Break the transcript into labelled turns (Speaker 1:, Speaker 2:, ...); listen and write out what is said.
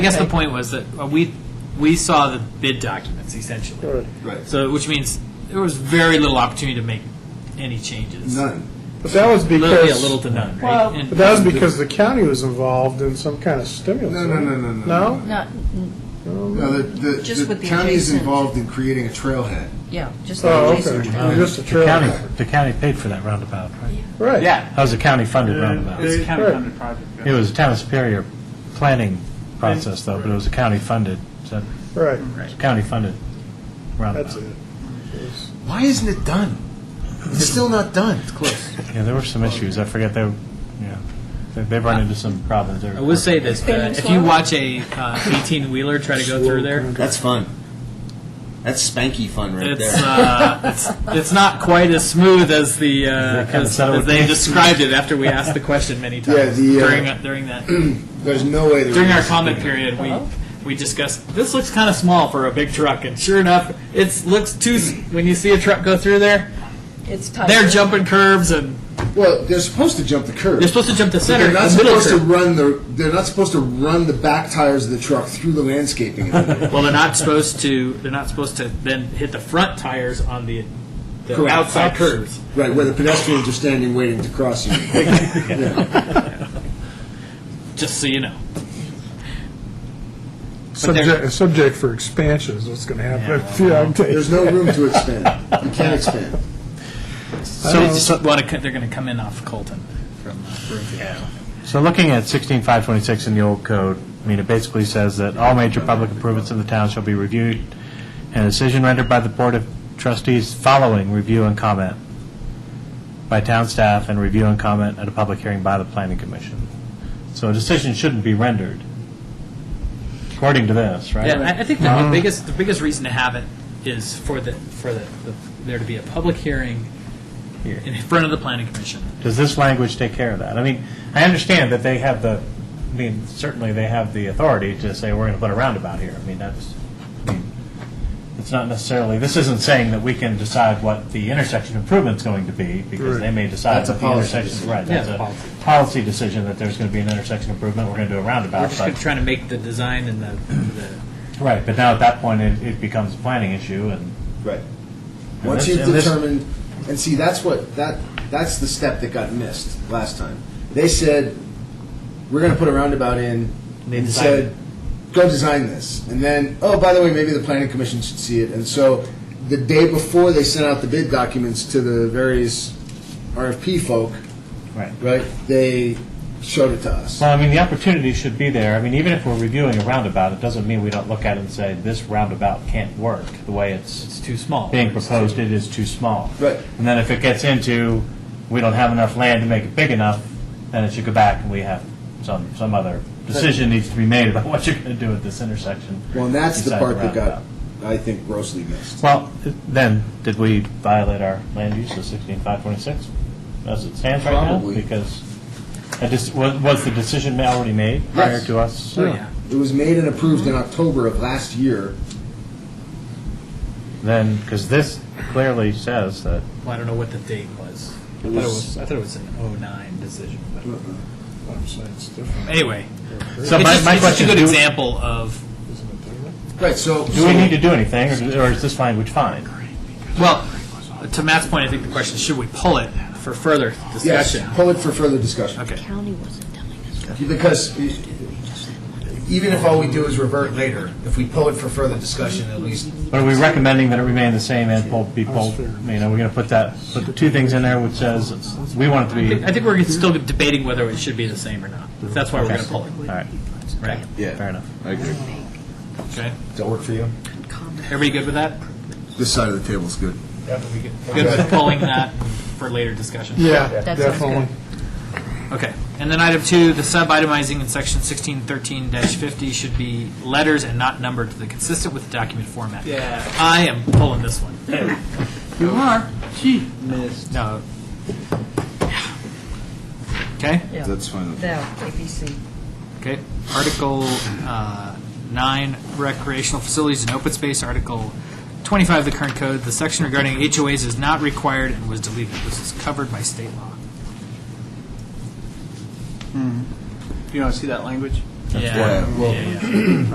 Speaker 1: I guess the point was that uh, we, we saw the bid documents essentially.
Speaker 2: Right.
Speaker 1: So, which means there was very little opportunity to make any changes.
Speaker 2: None.
Speaker 3: But that was
Speaker 1: Literally a little
Speaker 3: because,
Speaker 1: to none,
Speaker 4: Well-
Speaker 1: right? And-
Speaker 3: but that was because the county was involved in some kind of stimulus.
Speaker 2: No, no, no, no, no.
Speaker 3: No?
Speaker 4: Not, n-
Speaker 2: No, the, the,
Speaker 4: Just
Speaker 2: the
Speaker 4: with the
Speaker 2: county is
Speaker 4: adjacent.
Speaker 2: involved in creating a trailhead.
Speaker 4: yeah, just the
Speaker 3: Oh,
Speaker 4: adjacent
Speaker 3: okay.
Speaker 4: town.
Speaker 3: Just a
Speaker 5: Um, The county,
Speaker 3: trail.
Speaker 5: the county paid for that roundabout, right?
Speaker 3: Right.
Speaker 1: Yeah,
Speaker 5: That was a county-funded roundabout.
Speaker 6: It's a
Speaker 3: Right.
Speaker 6: county-funded project.
Speaker 5: It was a town of Superior planning process, though, but it was a county-funded, so
Speaker 3: Right.
Speaker 5: it's a county-funded
Speaker 3: That's
Speaker 5: roundabout.
Speaker 3: it.
Speaker 2: Why isn't it done? It's still not done. It's close.
Speaker 5: Yeah, there were some issues, I forget, they, were- yeah, they- they run into some problems.
Speaker 1: Uh, I will say this, uh, if you watch a eighteen wheeler try to go through there,
Speaker 7: That's fun. That's spanky fun right
Speaker 1: it's,
Speaker 7: there.
Speaker 1: uh, it's, it's not quite as smooth as the, uh,
Speaker 5: kinda
Speaker 1: as
Speaker 5: said it
Speaker 1: as
Speaker 5: would
Speaker 1: they
Speaker 5: be.
Speaker 1: described it after we asked the question many
Speaker 2: Yeah,
Speaker 1: times.
Speaker 2: the, uh,
Speaker 1: During, that- during that,
Speaker 2: There's no way. there
Speaker 1: during our
Speaker 2: is.
Speaker 1: comment period, we, we discussed, this looks kinda small for a big truck, and sure enough, it's, looks too, s- when you see a truck go through there,
Speaker 4: It's tight.
Speaker 1: they're jumping curves and,
Speaker 2: Well, they're supposed to jump the curb.
Speaker 1: they're supposed to jump the
Speaker 2: But
Speaker 1: center,
Speaker 2: they're
Speaker 1: the
Speaker 2: not
Speaker 1: middle
Speaker 2: supposed to
Speaker 1: curve.
Speaker 2: run the. They're not supposed to run the back tires of the truck through the landscaping. area.
Speaker 1: Well, they're not supposed to, they're not supposed to then hit the front tires on the, the
Speaker 2: Correct.
Speaker 1: outside curves.
Speaker 2: right where the pedestrians are standing waiting to cross you.
Speaker 1: just so you know.
Speaker 3: Subject, subject for expansion is what's going to happen. Yeah, I'm taking-
Speaker 2: There's no room to expand. You can't expand.
Speaker 1: So, they just want to, they're going to come in off Colton from uh, Broomfield.
Speaker 5: So looking at 16526 in the old code, I mean, it basically says that all major public improvements in the town shall be reviewed and a decision rendered by the Board of Trustees following review and comment by town staff and review and comment at a public hearing by the planning commission. So a decision shouldn't be rendered, according to this, right?
Speaker 1: Yeah, I, I think the
Speaker 5: Uh-huh.
Speaker 1: biggest the biggest reason to have it is for the for the, the there to be a public hearing
Speaker 5: Here.
Speaker 1: in front of the planning commission.
Speaker 5: Does this language take care of that? I mean, I understand that they have the, I mean, certainly they have the authority to say, we're going to put a roundabout here. I mean, that's, it's not necessarily, this isn't saying that we can decide what the intersection improvement's going to be, because they may decide
Speaker 2: That's a
Speaker 5: that the
Speaker 2: policy
Speaker 5: intersection, right,
Speaker 1: Yeah,
Speaker 5: that's
Speaker 1: it's a policy.
Speaker 5: a policy decision that there's going to be an intersection improvement, we're going to do a
Speaker 1: We're
Speaker 5: roundabout,
Speaker 1: just gonna-
Speaker 5: but,
Speaker 1: trying to make the design and the, the
Speaker 5: right, but now at that point, it, it becomes a planning issue, and
Speaker 2: Right. Once
Speaker 5: this-
Speaker 2: you've
Speaker 5: and this-
Speaker 2: determined, and see, that's what, that, that's the step that got missed last time. They said, we're gonna put a roundabout in, and said, go design this. And then, oh, by the way, maybe the planning commission should see it. And so, the day before they sent out the bid documents to the various RFP folk,
Speaker 5: right.
Speaker 2: right, they showed it to us.
Speaker 5: Well, I mean, the opportunity should be there. I mean, even if we're reviewing a roundabout, it doesn't mean we don't look at it and say, this roundabout can't work the way it's
Speaker 1: it's too small.
Speaker 5: being proposed, it is too small.
Speaker 2: Right.
Speaker 5: And then if it gets into, we don't have enough land to make it big enough, then it should go back and we have some, some other decision needs to be made about what you're going to do at this intersection.
Speaker 2: Well, and that's the
Speaker 5: beside
Speaker 2: part that got,
Speaker 5: roundabout.
Speaker 2: I think, grossly missed.
Speaker 5: Well, then, did we violate our land use of sixteen five twenty-six as it stands right now?
Speaker 2: Probably.
Speaker 5: Because, I just, was, was the decision already made prior
Speaker 2: Yes.
Speaker 5: to us?
Speaker 1: So, yeah.
Speaker 2: It was made and approved in October of last year.
Speaker 5: then, because this clearly says that,
Speaker 1: Well, I don't know what the date was. I thought it was I thought it was an 09 decision. But
Speaker 3: I'm saying it's different.
Speaker 1: anyway,
Speaker 5: so
Speaker 1: it's,
Speaker 5: my,
Speaker 1: just,
Speaker 5: my
Speaker 1: it's just a
Speaker 5: question,
Speaker 1: good
Speaker 5: do,
Speaker 1: example of
Speaker 2: Right, so.
Speaker 5: do we need to do anything, or do- or is this language fine?
Speaker 1: well, to Matt's point, I think the question is, should we pull it for further
Speaker 2: Yes,
Speaker 1: discussion?
Speaker 2: pull it for further discussion.
Speaker 1: Okay.
Speaker 4: County wasn't telling us. what
Speaker 2: Because
Speaker 4: to do, they just said,
Speaker 2: even if all we do is revert later, if we pull it for further discussion, at least.
Speaker 5: But are we recommending that it remain the same and pulled, be pulled? I mean, are we going to put that, put the two things in there which says, we want it to be,
Speaker 1: I think we're still debating whether it should be the same or not. That's why we're going to pull it,
Speaker 5: all right,
Speaker 1: right?
Speaker 2: Yeah.
Speaker 5: fair enough.
Speaker 2: I agree.
Speaker 1: Okay.
Speaker 2: Does that work for you?
Speaker 1: Everybody good with that?
Speaker 2: This side of the table's good.
Speaker 1: Good with pulling that for later discussion?
Speaker 3: Yeah,
Speaker 4: That sounds
Speaker 3: definitely.
Speaker 1: Okay. And then item two, the sub-itemizing in section 1613-50 should be letters and not numbered to the consistent with the document format. Yeah. I am pulling this one.
Speaker 6: You are, gee, miss.
Speaker 1: No. Okay?
Speaker 4: yeah,
Speaker 2: That's fine.
Speaker 4: That, ABC.
Speaker 1: Okay. Article uh, 9, recreational facilities and open space. Article 25 of the current code, the section regarding HOAs is not required and was deleted. This is covered by state law.
Speaker 6: You want to see that language?
Speaker 1: Yeah.
Speaker 7: why I-
Speaker 1: Yeah, yeah.